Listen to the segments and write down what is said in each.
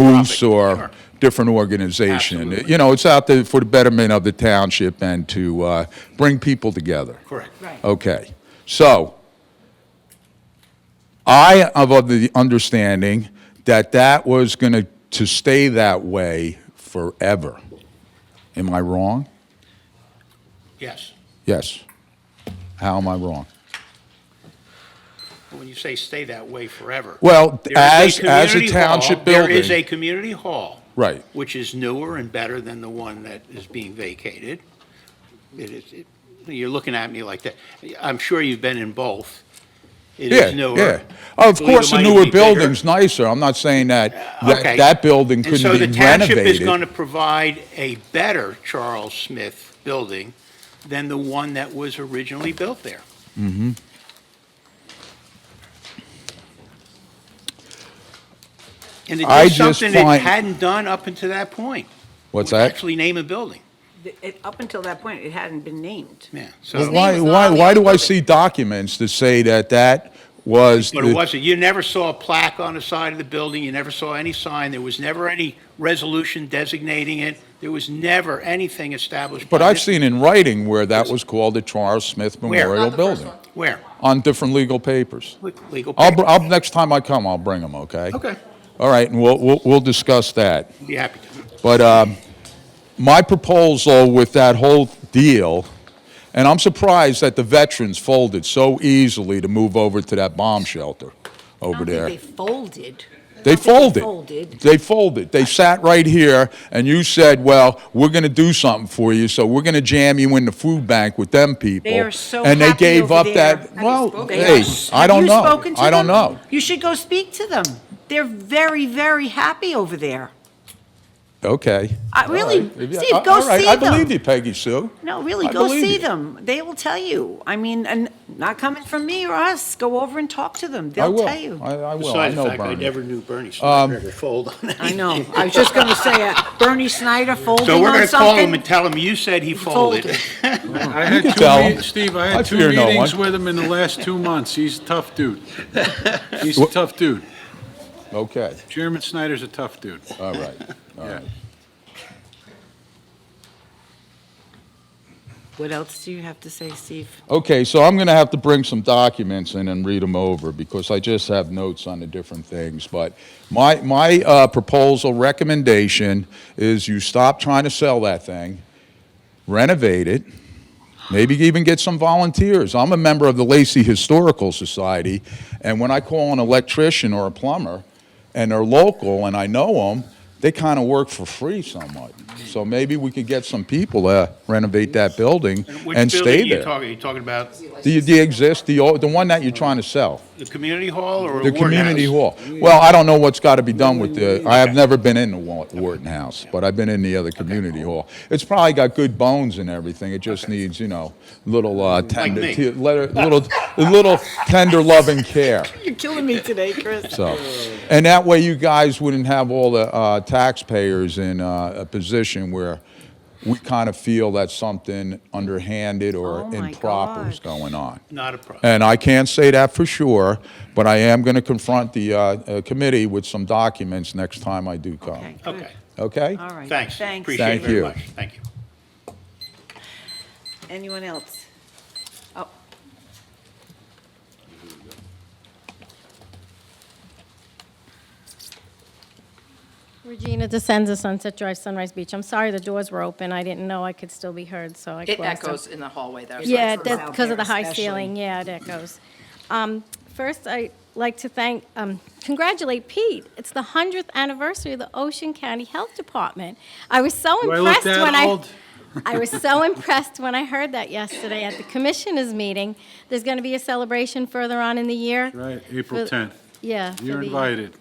moose Sure. or different organization. Absolutely. You know, it's out there for the betterment of the township and to uh, bring people together. Correct. Right. Okay, so I am of the understanding that that was going to, to stay that way forever. Am I wrong? Yes. Yes. How am I wrong? But When you say stay that way forever. Well, there as- as is a community hall- township There is building- a community hall. Right. Which is newer and better than the one that is being vacated. It is, it- you're looking at me like that. I'm sure you've been in both. It Yeah, is newer. yeah. Of Believe it course, the might newer be bigger. building's nicer. I'm not saying that, Okay. that, that building And couldn't be so the renovated. township is going to provide a better Charles Smith building than the one that was originally built there. Mm-hmm. And it I did just something it find- hadn't done up until that point. What's which that? Actually name a building, Th- it- Up until that point, it hadn't been named. yeah, Well, so, Why, was not why, on the why do I exhibit. see documents to say that that was? but it the- wasn't, you never saw a plaque on the side of the building, you never saw any sign, there was never any resolution designating it, there was never anything established. But by I've this- seen in writing where that was called the Charles Smith Where? Memorial Not the Building. Where? On different legal papers. Legal. I'll, br- paper. I'll, next time I come, I'll bring them, okay? Okay. All right, and we'll, we'll, we'll discuss that. Be happy to. But um, my proposal with that whole deal, and I'm surprised that the veterans folded so easily to move over to that bomb shelter Oh, over there. I don't think they folded. They I don't think folded. Folded. They folded. They sat right here, and you said, well, we're going to do something for you, so we're going to jam you in the food bank with them people. They are so And they happy gave over up there. that, Have you well, spoken They hey, are. Have I don't you know. spoken to I don't them? know. You should go speak to them. They're very, very happy over there. Okay. I- All really, right. If you- Steve, all go right. see I them. believe you, Peggy Sue. No, really, I go believe see you. them. They will tell you. I mean, and not coming from me or us, go over and talk to them. I They'll will. tell I you. I will. I Besides the know fact, I Bernie. Um, never knew Bernie Snyder ever fold on anything. I know. I was just going to say, uh, Bernie Snyder folding So we're on gonna call him and something. tell him, you said he folded. folded. I had can two tell meet- him. Steve, I I had two fear no meetings one. with him in the last two months. He's a tough dude. He's a tough dude. Okay. Chairman Snyder's a tough dude. All right. All Yeah. right. What else do you have to say, Steve? Okay, so I'm going to have to bring some documents in and read them over because I just have notes on the different things. But my, my uh, proposal recommendation is you stop trying to sell that thing, renovate it, maybe even get some volunteers. I'm a member of the Lacey Historical Society, and when I call an electrician or a plumber, and they're local and I know them, they kind of work for free somewhat. So maybe we could get some people to renovate that building Which and stay building you there. talking, you talking about The, the exist, the, old- the one that you're trying to sell, the community hall or the the Ward House? community hall. Well, I don't know what's got to be done with the, I have never been in the Wa- Wharton House, but I've been in the other community hall. It's probably got good bones and everything, it just needs, you know, little uh, tender, me. te- letter- little, little tender loving care, You're killing me today, Chris. so. And that way you guys wouldn't have all the uh, taxpayers in uh, a position where we kind of feel that something underhanded Oh, or my improper is gosh. going on. Not a problem. And I can't say that for sure, but I am going to confront the uh, uh, committee with some documents next time I do come. Okay, good. Okay, Okay? All right. thanks, Thanks. appreciate Uh, Thank it very you. much, thank you. Anyone else? Oh. Regina DeSenza, Sunset Drive, Sunrise Beach. I'm sorry the doors were open. I didn't know I could still be heard, so I It closed them. echoes in the hallway there. so Yeah, it's- that's because of the high especially. ceiling, yeah, it echoes. Um, First, I'd like to thank, um, congratulate Pete. It's the 100th anniversary of the Ocean County Health Department. I was so Do I look impressed that when I... old? I was so impressed when I heard that yesterday at the commissioners' meeting. There's going to be a celebration further on in the year. Right, April For- 10th. Yeah. for You're the- invited.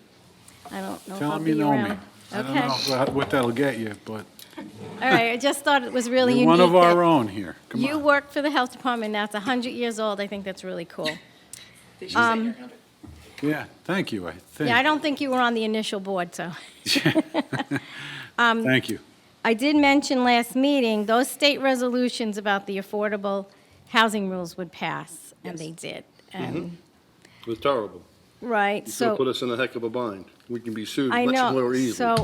I don't know if Tell I'll him you be know me. around. I don't Okay. know about what that'll get you, but All right, I just thought it was really you're one unique. of our that own here. Come You on. work for the health department now. It's 100 years old. I think that's really cool. Um, Yeah, thank you, I Yeah, I think. don't think you were on the initial board, so. Thank you. I did mention last meeting, those state resolutions about the affordable housing rules would pass, and they did. And, Mm-hmm. It was terrible. right, You could have put so, us in a heck of a bind. we can be sued I much know. more easily. So